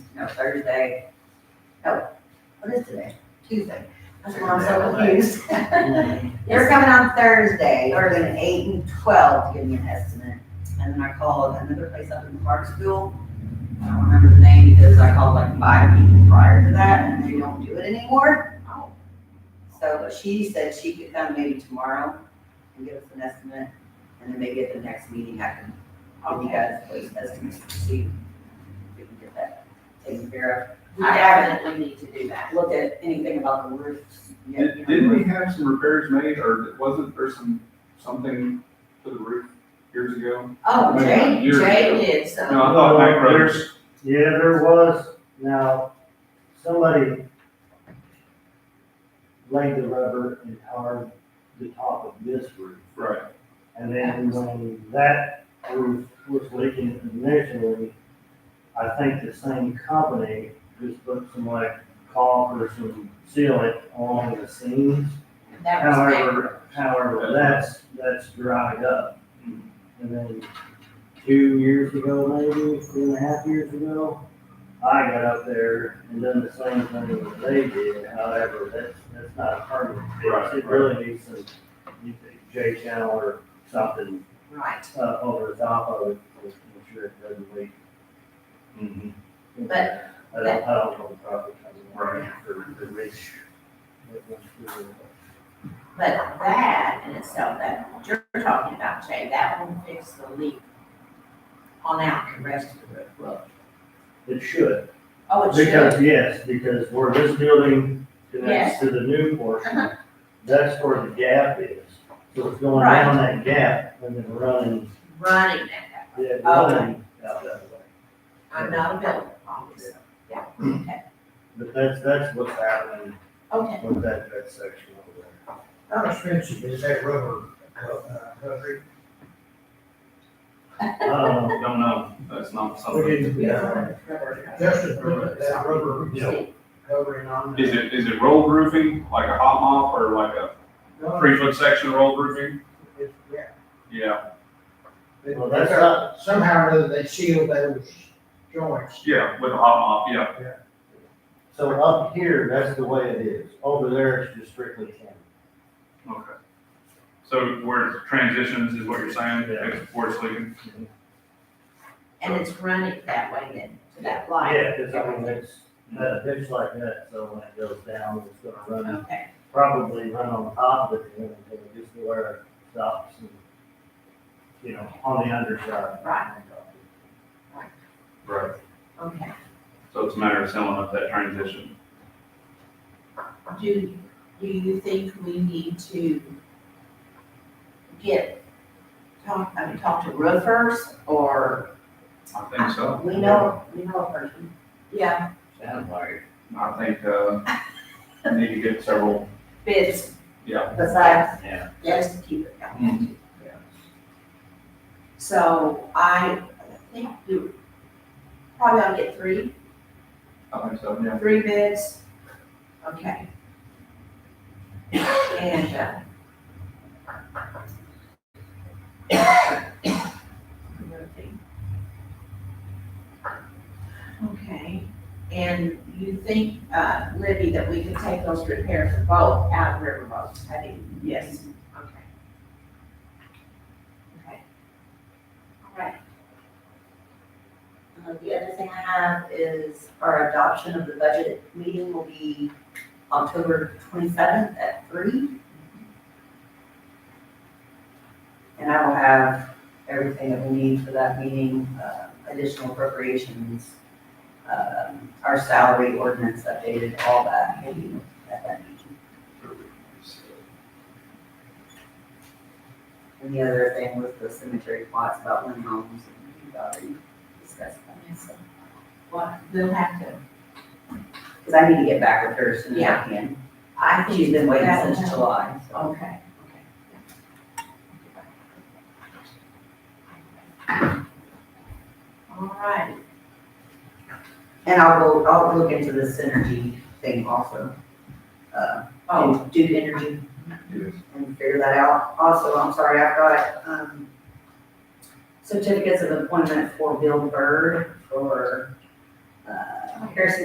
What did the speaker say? no, Thursday. Oh, what is today? Tuesday. That's why I'm so confused. They're coming on Thursday, or then eight and twelve, to give me an estimate. And then I called another place up in Clarksville. I don't remember the name because I called like five people prior to that and they don't do it anymore. So, but she said she could come maybe tomorrow and give us an estimate. And then maybe at the next meeting, I can, I'll you guys place estimates to see if we can get that taken care We definitely need to do that. of. Look at anything about the roofs. you know, Did- Didn't we have some repairs made, or wasn't there some, something to the roof years ago? Oh, Maybe Jay, not years ago. Jay did some, No, I thought Mike Brothers, Yeah, there was. Now, somebody laid the rubber and tarred the top of this roof. right, And then when that roof was leaking initially, I think the same company just put some like caulk or some sealant on the seams. that was Jay. However, however, that's, that's dried up. Mhm. And then two years ago, maybe, two and a half years ago, I got up there and done the same thing that they did. However, that's, that's not a permanent Right, fix. It right. really needs some you think, J channel or something, right. uh, over the top of it to make sure it doesn't leak. Mhm. But- I don't, I don't know the proper terminology Right. for the rich. that goes through the- But that in itself, that you're talking about, Jay, that won't fix the leak on out the rest of the roof. will it? It should. Oh, it should. Because, yes, because where this building connects to the new portion, that's where the gap is. So it's going Right. down that gap and then running, Running that, way. yeah, Oh. running out that way. I'm not a builder, obviously. Yeah, okay, But that's, that's what's happening okay. with that, that section over there. How expensive is that rubber, uh, concrete? Um, don't know, that's not We something. didn't- Yeah. Justin put that rubber Yeah. covering on. Is it, is it rolled roofing, like a hot mop, or like a No, three foot section rolled roofing? it's- Yeah. Yeah, They- Well, that's they- not- Somehow or other, they seal those joints. yeah, with a hot mop, yeah, so up here, that's the way it is. Over there, it's just strictly camera. okay. So where it transitions is what you're saying, Yeah. before it's leaking? And it's running that way then, to that line. Yeah, cause I mean, it's, that ditch like that, so when it goes down, it's gonna run Okay, probably run on top of it, and then just where it stops and, you know, on the underside. uh, Right. Right. okay. So it's a matter of sealing up that transition. Do, do you think we need to get, talk, I mean, talk to roofers or? I think so. We know, we know a person. Yeah, Sounds like. I think, uh, I need to get several, bids. Yeah. Besides, Yeah. yes, to keep it Mm. going. So I think you probably ought to get three, I think so, yeah. three bids. Okay. And, uh, another thing. Okay, and you think, uh, Libby, that we could take those repairs for both out of River Road, I think? Yes. Okay. Okay. All right. Uh, The other thing I have is our adoption of the budget meeting will be October twenty-seventh at three. And I will have everything that we need for that meeting, uh, additional appropriations, um, our salary ordinance updated, all that, maybe at that meeting. And the other thing was the cemetery plots about when homes, and we already discussed that, so. Well, we'll have to, Cause I need to get back with her as soon as I Yeah. can. I think. She's been waiting that- since July, so. Okay, okay. All right, And I'll go, I'll look into the synergy thing also. Uh, oh, and Duke Energy Yes. and figure that out. Also, I'm sorry, I've got, um, certificates of appointment for Bill Bird for, uh, Oh, uh, Harrison